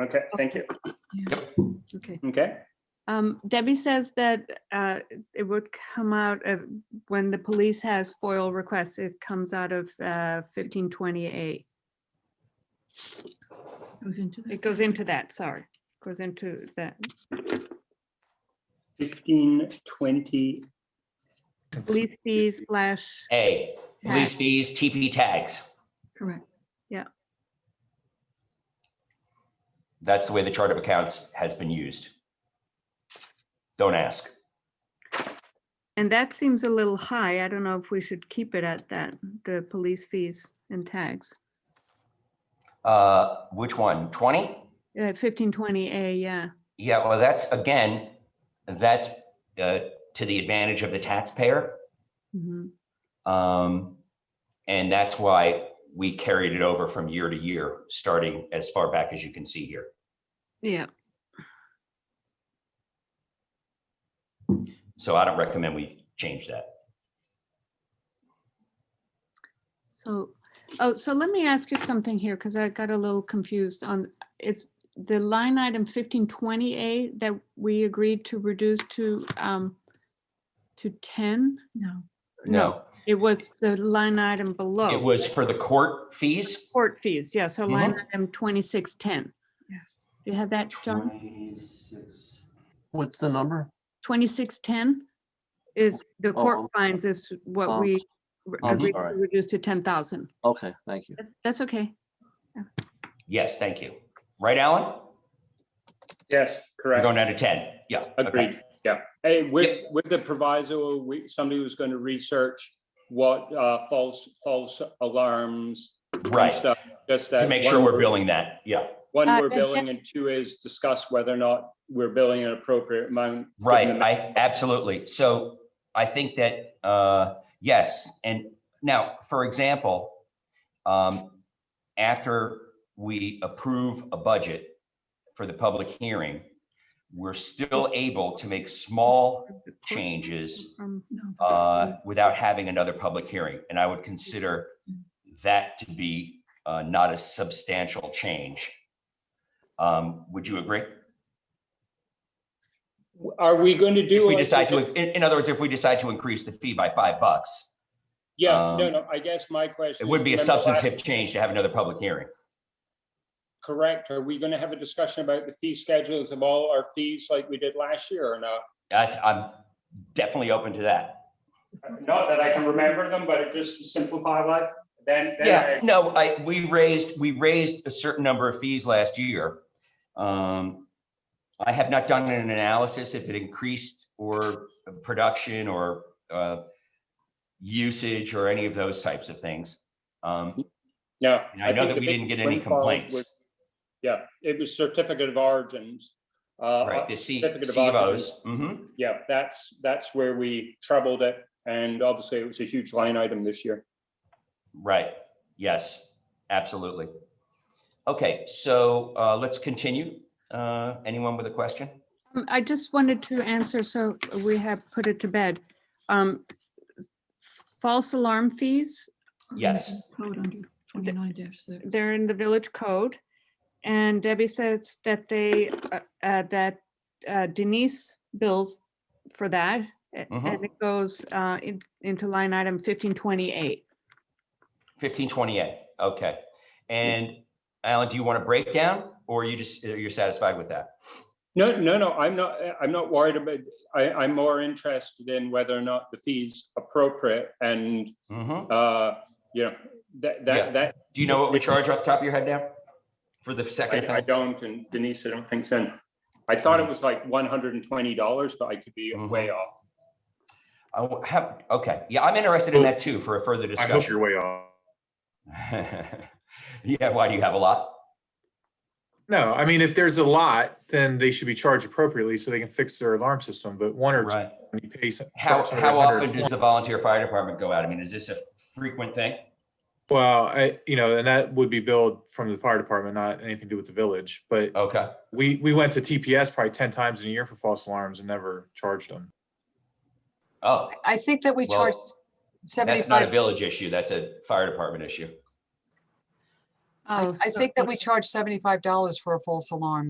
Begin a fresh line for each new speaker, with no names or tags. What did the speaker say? Okay, thank you.
Okay.
Okay,
Um, Debbie says that, uh, it would come out of, when the police has FOIL requests, it comes out of, uh, fifteen twenty-eight.
Goes into that.
It goes into that, sorry, goes into that.
fifteen twenty,
Police fees slash,
A, police fees, TP tags.
Correct.
That's the way the chart of accounts has been used. Don't ask.
and that seems a little high. I don't know if we should keep it at that, the police fees and tags.
Uh, which one? 20?
Uh, fifteen twenty A, yeah.
Yeah, well, that's, again, that's uh, to the advantage of the taxpayer.
Mhm.
Um, And that's why we carried it over from year to year, starting as far back as you can see here.
Yeah,
So I don't recommend we change that.
so, oh, so let me ask you something here, because I got a little confused on, it's the line item fifteen twenty A that we agreed to reduce to, um, to ten?
No.
No,
It was the line item below.
it was for the court fees.
Court fees, yeah, so line
Uh-huh.
item twenty-six ten.
Yes.
You had that, John?
26.
What's the number?
Twenty-six ten is the
Oh.
court fines is
Oh.
what we re-
I'm
agreed to
sorry.
reduce to ten thousand.
Okay, thank you.
That's okay.
Yes, thank you. Right, Alan?
yes,
You're
correct.
going down to 10. Yeah. okay.
Agreed, yeah. Hey, with, with the proviso, we, somebody was going to research what uh, false, false alarms. and
Right.
stuff, Just that.
To make sure
one-
we're billing that. Yeah.
One,
Uh,
we're
yeah.
billing, and two is discuss whether or not we're billing an appropriate amount. given
Right,
the-
I, absolutely. So I think that, uh, yes, and now, for example, um, after we approve a budget for the public hearing, we're still able to make small
The court
changes,
from-
Um, No.
uh, without having another public hearing. And I would consider that to be, uh, not a substantial change. Um, would you agree?
Are we going to do?
If we
like we
decide to,
did-
in, in other words, if we decide to increase the fee by five bucks,
Yeah, no,
um,
no, I guess my question.
It would
is,
be a
remember last-
substantive change to have another public hearing.
Correct. Are we going to have a discussion about the fee schedules of all our fees like we did last year or not?
That's, I'm definitely open to that.
Not that I can remember them, but just to simplify life, then. then
Yeah, no, I, we raised, we raised a certain number of fees last year. Um, I have not done an analysis if it increased or production or, uh, usage or any of those types of things. Um,
No.
and I know
think
that
the
we
big
didn't get any
windfall
complaints,
was- Yeah, it was certificate of origins. uh,
right? The C, E
certificate of
CVOs.
occupancy.
Mhm.
Yeah, that's, that's where we troubled it. And obviously it was a huge line item this year.
right. Yes, absolutely. Okay, so, uh, let's continue. Uh, anyone with a question?
Um, I just wanted to answer, so we have put it to bed. Um, False alarm fees,
Yes.
Code under twenty-nine dash six.
they're in the village code. And Debbie says that they, uh, uh, that uh, Denise bills for that. a- And
Mhm.
it goes uh, in- into line item 1528.
Fifteen twenty-eight, okay. And Alan, do you want a breakdown or you just, you're satisfied with that?
No, no, no, I'm not, I'm not worried about, I, I'm more interested in whether or not the fee's appropriate and,
Mhm.
uh, you know, that,
Yeah.
that, that
Do you know what we charge off the top of your head now? For the second
I, I
thing?
don't, and Denise, I don't think so. I thought it was like one hundred and twenty dollars, but I could be
Mhm.
way off.
I wa- have, okay, yeah, I'm interested in that too for a further
I hope
discussion.
you're way off.
Yeah, why do you have a lot?
No, I mean, if there's a lot, then they should be charged appropriately so they can fix their alarm system, but one or two,
Right.
you pay. some-
How,
charge
how
somebody
often does
120.
the volunteer fire department go out? I mean, is this a frequent thing?
Well, I, you know, and that would be billed from the fire department, not anything to do with the village, but
Okay,
we, we went to TPS probably ten times in a year for false alarms and never charged them.
oh,
I think that we
Well,
charge
that's not a
seventy-five,
village issue, that's a fire department issue.
um, I
Oh,
I
so-
think that we charge seventy-five dollars for a false alarm.